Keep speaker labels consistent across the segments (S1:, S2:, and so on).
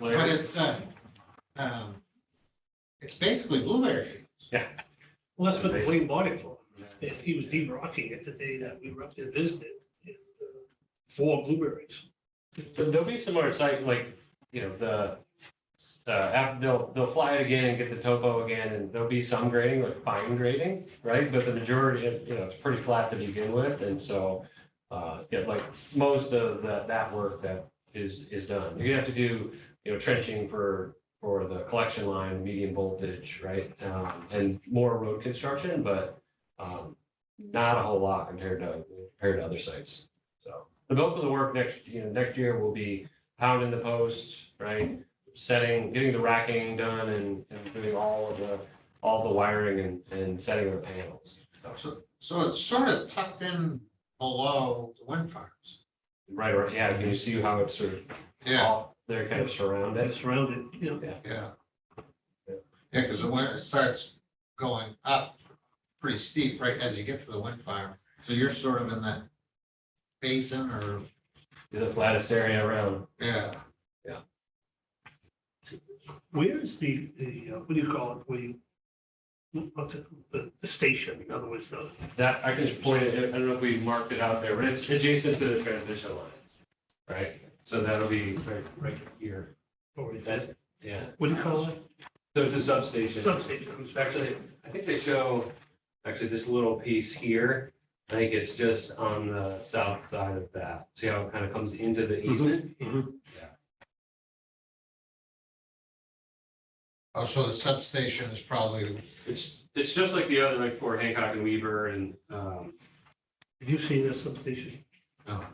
S1: But
S2: Larry,
S1: it's, uh, um, it's basically blueberry fields.
S3: Well, that's what Wayne bought it for. And He was de-rocking it the day that we were up there visiting. and, uh, Four blueberries.
S2: But there'll be some other site, like, you know, the, uh, app- they'll, they'll fly it again and get the topo again, and there'll be some grading, like fine grading, right? But the majority, of you know, it's pretty flat to begin with, and so, uh, yeah, like, most of the, that work that is, is done. You're gonna have to do, you know, trenching for, for the collection line, medium voltage, right? Um, and more road construction, but, um, not a whole lot compared to, compared to other sites, so. The bulk of the work next, you know, next year will be pounding the post, right? Setting, getting the racking done and, and doing all of the, all the wiring and, and setting of the panels.
S1: So, so it's sort of tucked in below the wind farms.
S2: Right, or, yeah, can you see how it's sort of,
S1: Yeah,
S2: all- they're kind of surrounded?
S3: That's surrounded, you know,
S1: yeah. Yeah, because the wind, it starts going up pretty steep right as you get to the wind farm. So you're sort of in that basin or,
S2: The flattest area around.
S1: yeah,
S3: where is the, the, uh, what do you call it, where you? What's it, the, the station, in other words, the,
S2: That, I can just point it, I don't know if we marked it out there, but it's adjacent to the transmission line. Right, so that'll be right, right here.
S3: or is that,
S2: That, yeah,
S3: what do you call it?
S2: so it's a substation.
S3: Substation. I'm sorry.
S2: Actually, I think they show, actually, this little piece here, I think it's just on the south side of that. See how it kind of comes into the
S3: Mm-hmm.
S2: easement?
S1: oh, so the substation is probably,
S2: It's, it's just like the other, like Fort Hancock and Weaver and um,
S3: Have you seen this substation?
S1: oh,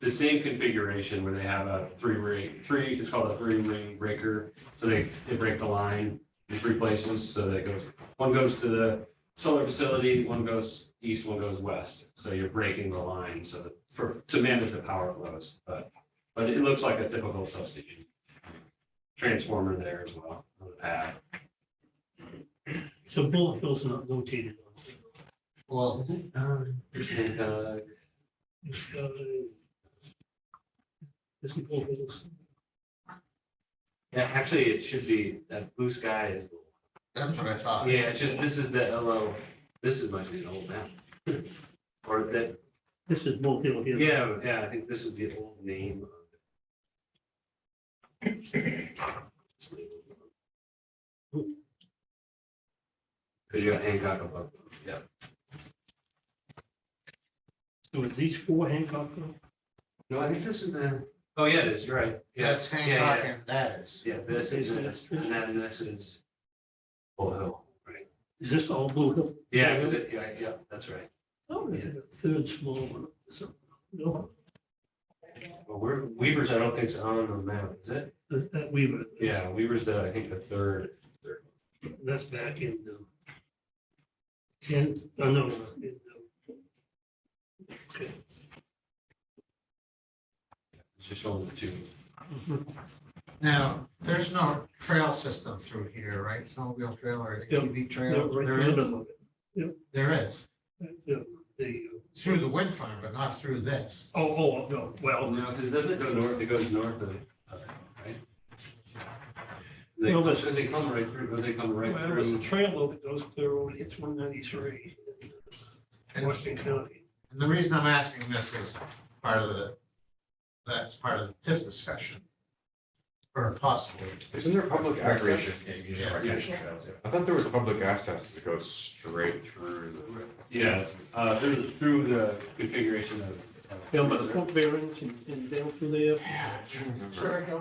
S2: the same configuration where they have a three ring, three, it's called a three ring breaker. So they, they break the line in three places, so that goes, one goes to the solar facility, one goes east, one goes west. So you're breaking the line so that, for, to manage the power flows, but, but it looks like a typical substation. Transformer there as well, on the pad.
S3: So Bull Hill's not located on. it.
S1: well,
S2: Um, And, uh,
S3: It's, uh, Isn't Bull Hill's?
S2: yeah, actually, it should be, that blue sky is
S1: that's what I thought.
S2: Yeah, it's just, this is the LO, this is my new old map. Or that,
S3: This is Bull Hill here.
S2: yeah, yeah, I think this is the old name. Because you got Hancock above, yeah.
S3: So is these four Hancock? Hill?
S2: No, I think this is the, oh, yeah, it is, you're right. Yeah,
S1: That's
S2: yeah,
S1: Hancock and that is,
S2: Yeah, this is, this, and then this is Bull Hill, right?
S3: Is this all Bull Hill?
S2: Yeah, is it, yeah, yeah, that's right.
S3: Oh, there's a third small one. So, no,
S2: Well, we're, Weaver's, I don't think is on the map, is it?
S3: that that Weaver.
S2: Yeah, Weaver's the, I think, the third.
S3: That's back in the. Ten, oh, no, no, in the-
S2: It's just showing the two.
S3: uh,
S1: now, there's no trail system through here, right? Snowmobile trail or
S3: Yeah.
S1: ATV
S3: no,
S1: trail?
S3: right
S1: There
S3: in the
S1: is?
S3: middle of it.
S1: There is,
S3: The, the, uh,
S1: through the wind farm, but not through this.
S3: oh, oh, no,
S2: Oh,
S3: well,
S2: no, because it doesn't go north, it goes north of, of it, right? They,
S3: No, but-
S2: because they come right through, don't they come right
S3: well, there's a
S2: through.
S3: trail over that goes clear over, hits one ninety-three.
S1: And
S3: Washington County.
S1: and the reason I'm asking this is part of the, that's part of the TIF discussion. Or possibly,
S4: Isn't there public access?
S5: Yeah, you
S1: Yeah.
S5: just recreation trails, yeah.
S4: I thought there was public access that goes straight through the.
S2: Yeah, uh, through, through the configuration of. of-
S3: Yeah, but the front bearings and, and down through there.
S4: Yeah, I'm trying to remember.
S5: Sure, Hill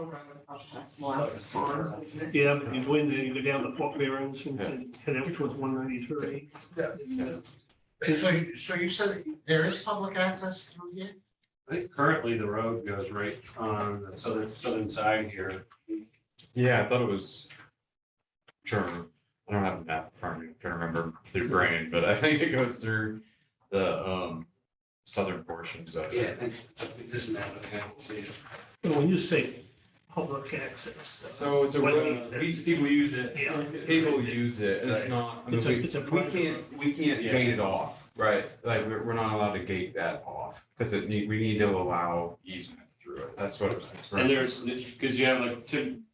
S5: Road, that's the last one, isn't it?
S3: Yeah, but you go in there, you go down the port bearings and, and head out towards one ninety-three.
S1: so, you- so you said there is public access through here?
S2: I think currently the road goes right on the southern, southern side here.
S4: Yeah, I thought it was. Sure, I don't have a map in front of me, I'm trying to remember through brain, but I think it goes through the um southern portions of
S2: Yeah,
S4: it.
S2: I think, I think this map, I can't see it.
S3: And when you say public access. uh,
S4: So it's a,
S3: What-
S4: road- we- people use it,
S3: Yeah.
S4: people use it, and it's not, I mean,
S3: It's a-
S4: we,
S3: it's a
S4: we
S3: private
S4: can't, we can't
S2: Yeah.
S4: gate it off, right? Like, we're, we're not allowed to gate that off, because it need, we need to allow easement through it, that's what. it's-
S2: And there's, because you have like, typ-